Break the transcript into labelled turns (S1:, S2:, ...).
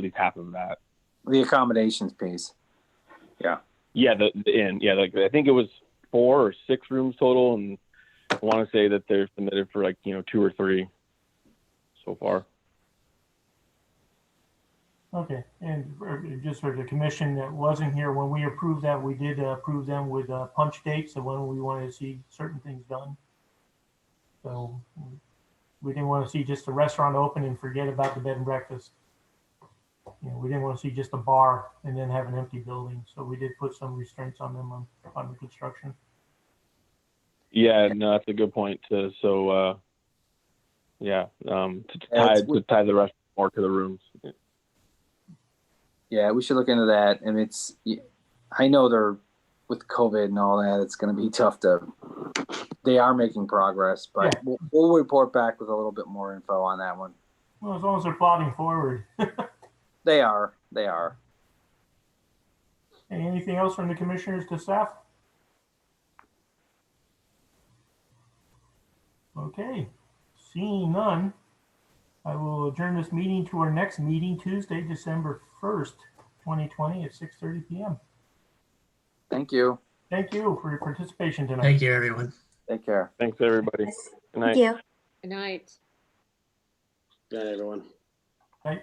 S1: least half of that.
S2: The accommodations piece.
S1: Yeah, the, the inn. Yeah, like I think it was four or six rooms total, and I want to say that they're submitted for like you know two or three so far.
S3: Okay, and for- just for the commission that wasn't here, when we approved that, we did uh, approve them with uh, punch dates of when we wanted to see certain things done. So mm, we didn't want to see just the restaurant open and forget about the bed and breakfast. You know, we didn't want to see just a bar and then have an empty building, so we did put some restraints on them on, on the construction.
S1: Yeah, no, that's a good point. To, so, uh, yeah, um, to
S2: Yeah,
S1: tie
S2: it's-
S1: to tie the rest more to the rooms.
S2: Yeah, we should look into that. And it's, I know they're with COVID and all that. It's going to be tough to. They are making progress, but we'll, we'll report back with a little bit more info on that one.
S3: Well, as long as they're plodding forward.
S2: They are. They are.
S3: Anything else from the commissioners to staff? Okay, seeing none, I will adjourn this meeting to our next meeting Tuesday, December first, twenty twenty at six thirty PM.
S2: Thank you.
S3: Thank you for your participation tonight.
S4: Thank you, everyone.
S2: Take care.
S1: Thanks, everybody. Good night.
S5: Thank you.
S6: Good night.
S7: Good night, everyone.
S3: Right.